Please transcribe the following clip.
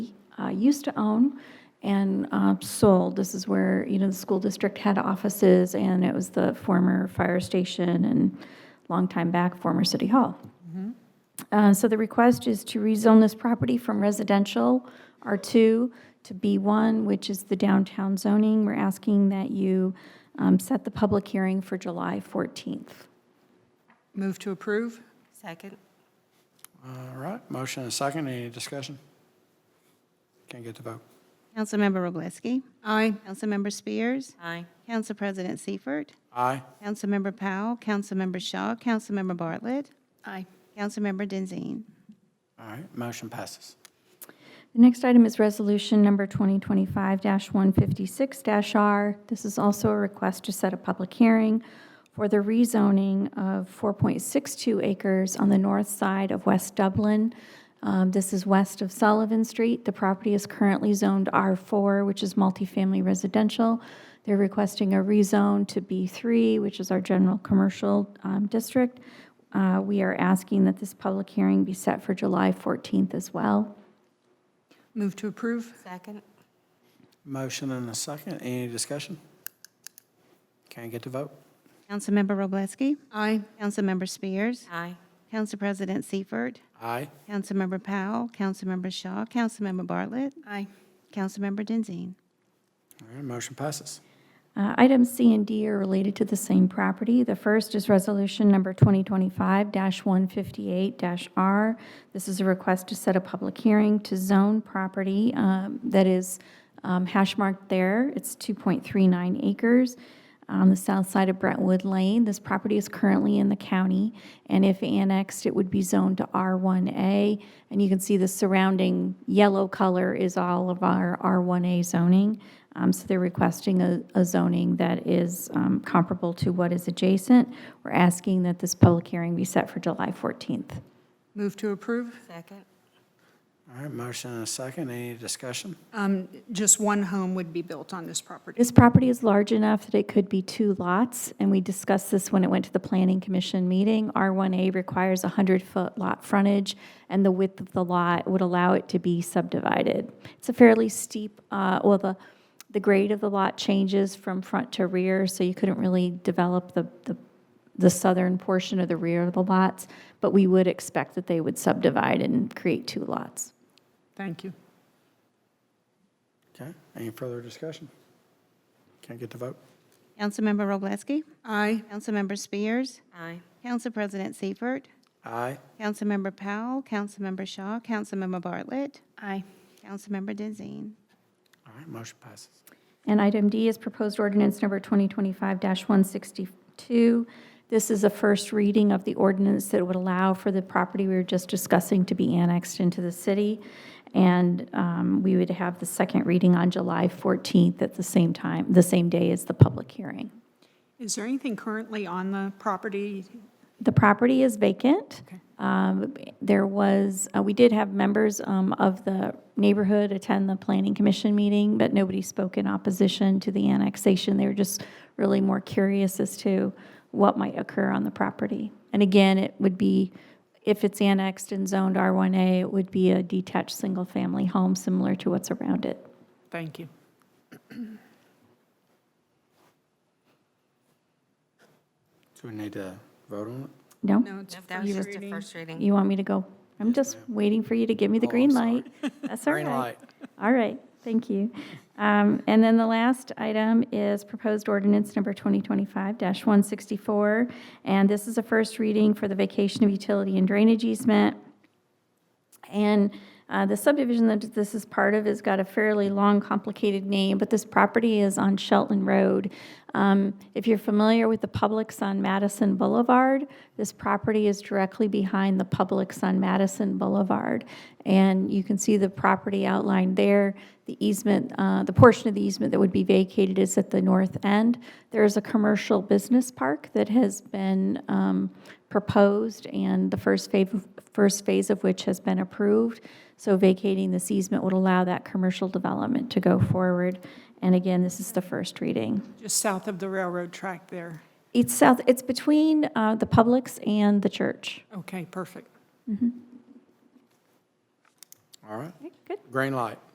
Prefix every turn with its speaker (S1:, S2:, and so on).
S1: uh, used to own and uh, sold. This is where, you know, the school district had offices, and it was the former fire station and long time back, former city hall. Uh, So the request is to rezone this property from residential R2 to B1, which is the downtown zoning. We're asking that you um, set the public hearing for July 14th.
S2: Move to approve?
S3: Second.
S4: All right, motion and a second, any discussion? Can't get the vote.
S5: Councilmember Roblesky.
S2: Aye.
S5: Councilmember Spears.
S3: Aye.
S5: Council President Seifert.
S4: Aye.
S5: Councilmember Powell. Councilmember Shaw. Councilmember Bartlett.
S2: Aye.
S5: Councilmember Denzine.
S4: All right, motion passes.
S1: The next item is Resolution Number 2025-156-R. This is also a request to set a public hearing for the rezoning of 4.62 acres on the north side of West Dublin. Um, This is west of Sullivan Street. The property is currently zoned R4, which is multifamily residential. They're requesting a rezone to B3, which is our general commercial um, district. Uh, We are asking that this public hearing be set for July 14th as well.
S2: Move to approve?
S3: Second.
S4: Motion and a second, any discussion? Can't get the vote.
S5: Councilmember Roblesky.
S2: Aye.
S5: Councilmember Spears.
S3: Aye.
S5: Council President Seifert.
S4: Aye.
S5: Councilmember Powell. Councilmember Shaw. Councilmember Bartlett.
S2: Aye.
S5: Councilmember Denzine.
S4: All right, motion passes.
S1: Uh, Items C and D are related to the same property. The first is Resolution Number 2025-158-R. This is a request to set a public hearing to zone property um, that is um, hash marked there. It's 2.39 acres on the south side of Brentwood Lane. This property is currently in the county, and if annexed, it would be zoned to R1A. And you can see the surrounding yellow color is all of our R1A zoning. Um, So they're requesting a a zoning that is um, comparable to what is adjacent. We're asking that this public hearing be set for July 14th.
S2: Move to approve?
S3: Second.
S4: All right, motion and a second, any discussion?
S2: Um, Just one home would be built on this property.
S1: This property is large enough that it could be two lots, and we discussed this when it went to the Planning Commission meeting. R1A requires 100-foot lot frontage, and the width of the lot would allow it to be subdivided. It's a fairly steep, uh, well, the, the grade of the lot changes from front to rear, so you couldn't really develop the, the- the southern portion of the rear of the lots, but we would expect that they would subdivide and create two lots.
S2: Thank you.
S4: Okay, any further discussion? Can't get the vote.
S5: Councilmember Roblesky.
S2: Aye.
S5: Councilmember Spears.
S3: Aye.
S5: Council President Seifert.
S4: Aye.
S5: Councilmember Powell. Councilmember Shaw. Councilmember Bartlett.
S2: Aye.
S5: Councilmember Denzine.
S4: All right, motion passes.
S1: And item D is proposed ordinance number 2025-162. This is a first reading of the ordinance that would allow for the property we were just discussing to be annexed into the city. And um, we would have the second reading on July 14th at the same time, the same day as the public hearing.
S2: Is there anything currently on the property?
S1: The property is vacant. Um, There was, uh, we did have members um, of the neighborhood attend the planning commission meeting, but nobody spoke in opposition to the annexation. They were just really more curious as to what might occur on the property. And again, it would be, if it's annexed and zoned R1A, it would be a detached, single-family home similar to what's around it.
S2: Thank you.
S4: Do we need to vote on it?
S1: No?
S2: No, it's
S3: That was
S2: first
S3: just a
S2: reading.
S3: first reading.
S1: You want me to go? I'm just waiting for you to give me the
S4: Oh, I'm
S1: green
S4: sorry.
S1: light. That's all right.
S4: Green light.
S1: All right, thank you. Um, And then the last item is proposed ordinance number 2025-164, and this is a first reading for the vacation of utility and drainage easement. And uh, the subdivision that this is part of has got a fairly long, complicated name, but this property is on Shelton Road. Um, If you're familiar with the Publix on Madison Boulevard, this property is directly behind the Publix on Madison Boulevard. And you can see the property outlined there. The easement, uh, the portion of the easement that would be vacated is at the north end. There is a commercial business park that has been um, proposed, and the first phase, first phase of which has been approved. So vacating this easement would allow that commercial development to go forward. And again, this is the first reading.
S2: Just south of the railroad track there.
S1: It's south, it's between uh, the Publix and the church.
S2: Okay, perfect.
S4: All right,
S1: Good.
S4: green light.